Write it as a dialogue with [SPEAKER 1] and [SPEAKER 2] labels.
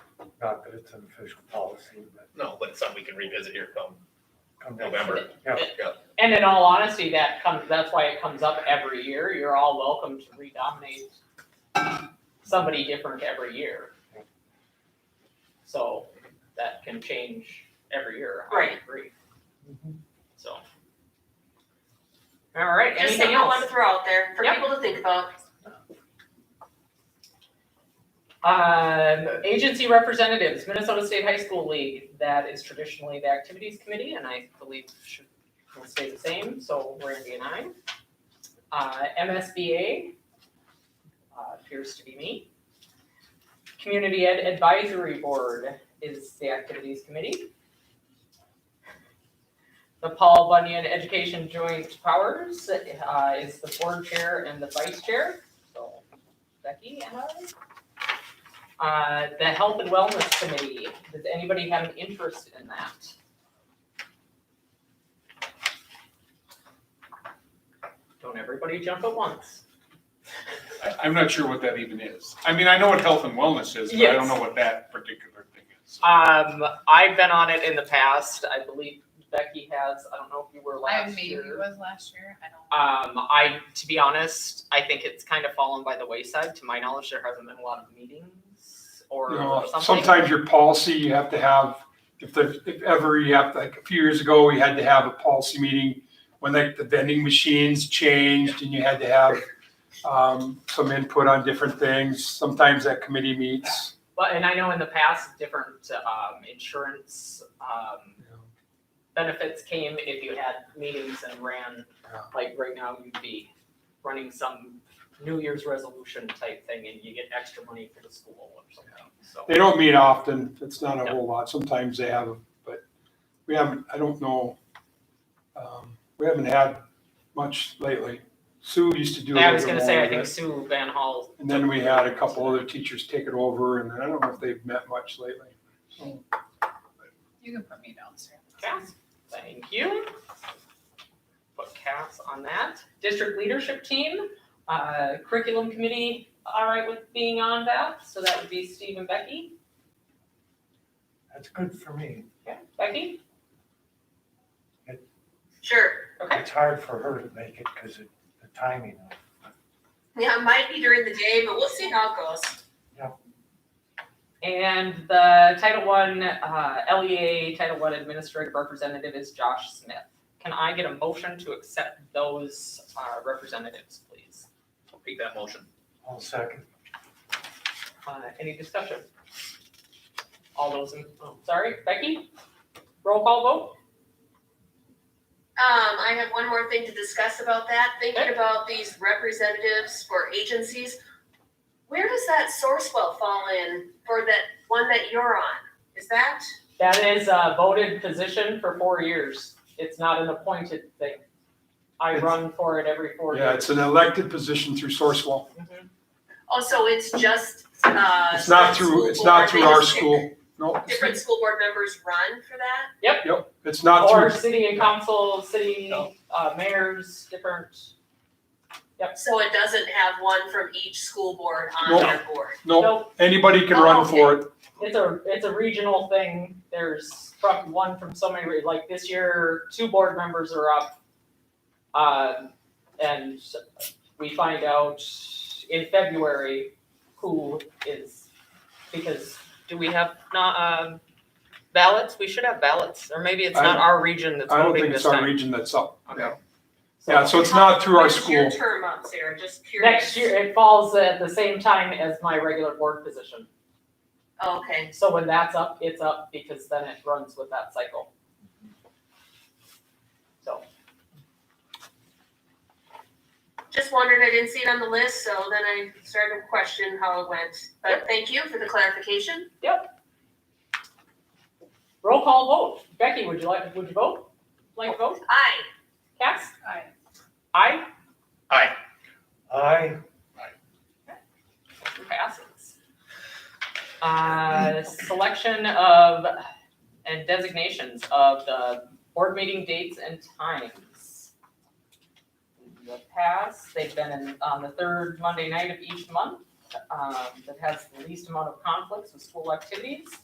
[SPEAKER 1] Not that it's an official policy, but
[SPEAKER 2] No, but it's something we can revisit here come
[SPEAKER 1] come down.
[SPEAKER 2] November.
[SPEAKER 1] Yeah.
[SPEAKER 3] And in all honesty, that comes, that's why it comes up every year. You're all welcome to redominate somebody different every year. So that can change every year, I
[SPEAKER 4] Right.
[SPEAKER 3] agree.
[SPEAKER 1] Mhm.
[SPEAKER 3] So. All right,
[SPEAKER 4] Just
[SPEAKER 3] anything
[SPEAKER 4] something I wanted
[SPEAKER 3] else?
[SPEAKER 4] to throw out there for
[SPEAKER 3] Yep.
[SPEAKER 4] people to think about.
[SPEAKER 3] Um, agency representatives, Minnesota State High School League, that is traditionally the activities committee and I believe should will stay the same, so Randy and I. Uh, MSBA, uh, appears to be me. Community Ed Advisory Board is the activities committee. The Paul Bunyan Education Joint Powers, uh, is the board chair and the vice chair, so Becky and I. Uh, the Health and Wellness Committee, does anybody have an interest in that? Don't everybody jump at once.
[SPEAKER 5] I, I'm not sure what that even is. I mean, I know what health and wellness is, but I
[SPEAKER 3] Yes.
[SPEAKER 5] don't know what that particular thing is.
[SPEAKER 3] Um, I've been on it in the past, I believe Becky has, I don't know if you were
[SPEAKER 6] I
[SPEAKER 3] last
[SPEAKER 6] maybe
[SPEAKER 3] year.
[SPEAKER 6] was last year, I don't.
[SPEAKER 3] Um, I, to be honest, I think it's kind of fallen by the wayside, to my knowledge, there hasn't been a lot of meetings or
[SPEAKER 7] You
[SPEAKER 3] or
[SPEAKER 7] know,
[SPEAKER 3] something.
[SPEAKER 7] sometimes your policy, you have to have, if there's, if ever you have, like a few years ago, we had to have a policy meeting when like the vending machines changed and you had to have, um, some input on different things. Sometimes that committee meets.
[SPEAKER 3] But, and I know in the past, different, um, insurance, um,
[SPEAKER 7] you know.
[SPEAKER 3] benefits came if you had meetings and ran,
[SPEAKER 7] Yeah.
[SPEAKER 3] like right now you'd be running some New Year's resolution type thing and you get extra money for the school or something, so.
[SPEAKER 7] They don't meet often. It's not a whole lot. Sometimes they have, but we haven't, I don't know. Um, we haven't had much lately. Sue used to do
[SPEAKER 3] I
[SPEAKER 7] a little
[SPEAKER 3] was
[SPEAKER 7] bit
[SPEAKER 3] gonna say,
[SPEAKER 7] more
[SPEAKER 3] I
[SPEAKER 7] of
[SPEAKER 3] think
[SPEAKER 7] it.
[SPEAKER 3] Sue Van Hall.
[SPEAKER 7] And then we had a couple other teachers take it over and I don't know if they've met much lately.
[SPEAKER 6] You can put me down, sir.
[SPEAKER 3] Cass, thank you. Put Cass on that. District leadership team, uh, curriculum committee, all right with being on that, so that would be Steve and Becky.
[SPEAKER 1] That's good for me.
[SPEAKER 3] Okay, Becky,
[SPEAKER 4] Sure.
[SPEAKER 3] okay,
[SPEAKER 1] It's hard for her to make it because of the timing. of it.
[SPEAKER 4] Yeah, it might be during the day, but we'll see how it goes.
[SPEAKER 3] and the Title One, uh, LEA Title One Administrative Representative is Josh Smith. Can I get a motion to accept those, uh, representatives, please?
[SPEAKER 2] I'll Make that motion.
[SPEAKER 1] I'll second.
[SPEAKER 3] Uh, any discussion? All those in, oh, sorry, Becky? Roll call vote?
[SPEAKER 4] Um, I have one more thing to discuss about that,
[SPEAKER 3] Okay.
[SPEAKER 4] thinking about these representatives for agencies. Where does that Sourcewell fall in for that one that you're on? Is that,
[SPEAKER 3] That is a voted position for four years. It's not an appointed thing. I
[SPEAKER 7] It's-
[SPEAKER 3] run for it every four
[SPEAKER 7] Yeah,
[SPEAKER 3] years.
[SPEAKER 7] it's an elected position through Sourcewell.
[SPEAKER 3] Mhm.
[SPEAKER 4] oh, so it's just, uh.
[SPEAKER 7] It's
[SPEAKER 4] some
[SPEAKER 7] not through,
[SPEAKER 4] school
[SPEAKER 7] it's not
[SPEAKER 4] board,
[SPEAKER 7] through our
[SPEAKER 4] they just pick-
[SPEAKER 7] school. No, it's-
[SPEAKER 4] Different school board members run for that?
[SPEAKER 7] yep, it's not
[SPEAKER 3] Or
[SPEAKER 7] through,
[SPEAKER 3] city and council, city,
[SPEAKER 2] No.
[SPEAKER 3] uh, mayors, different,
[SPEAKER 4] So it doesn't have one from each school board on
[SPEAKER 7] No.
[SPEAKER 4] their board?
[SPEAKER 7] no,
[SPEAKER 3] nope,
[SPEAKER 7] anybody can
[SPEAKER 4] Oh,
[SPEAKER 7] run
[SPEAKER 4] okay.
[SPEAKER 7] for it.
[SPEAKER 3] it's a, it's a regional thing. There's from one from so many, like this year, two board members are up. Um, and we find out in February who is, because do we have not, um, ballots? We should have ballots, or maybe it's not
[SPEAKER 7] I-
[SPEAKER 3] our region that's
[SPEAKER 7] I don't
[SPEAKER 3] voting
[SPEAKER 7] think
[SPEAKER 3] this
[SPEAKER 7] it's our
[SPEAKER 3] time.
[SPEAKER 7] region that's up.
[SPEAKER 3] Okay.
[SPEAKER 7] Yeah, so it's not through
[SPEAKER 4] When
[SPEAKER 7] our
[SPEAKER 4] is your
[SPEAKER 7] school.
[SPEAKER 4] term up, Sarah? Just curious.
[SPEAKER 3] Next year, it falls at the same time as my regular board position.
[SPEAKER 4] Oh, Okay.
[SPEAKER 3] So when that's up, it's up because then it runs with that cycle. So,
[SPEAKER 4] Just wondered, I didn't see it on the list, so then I started to question how it went. But thank you for the clarification.
[SPEAKER 3] roll call vote. Becky, would you like, would you vote? Like to vote?
[SPEAKER 4] Aye.
[SPEAKER 3] Cass?
[SPEAKER 6] Aye.
[SPEAKER 3] Aye?
[SPEAKER 2] Aye.
[SPEAKER 1] I,
[SPEAKER 3] Passes. Uh, selection of, and designations of the board meeting dates and times. In The past, they've been in- on the third Monday night of each month, um, that has the least amount of conflicts with school activities.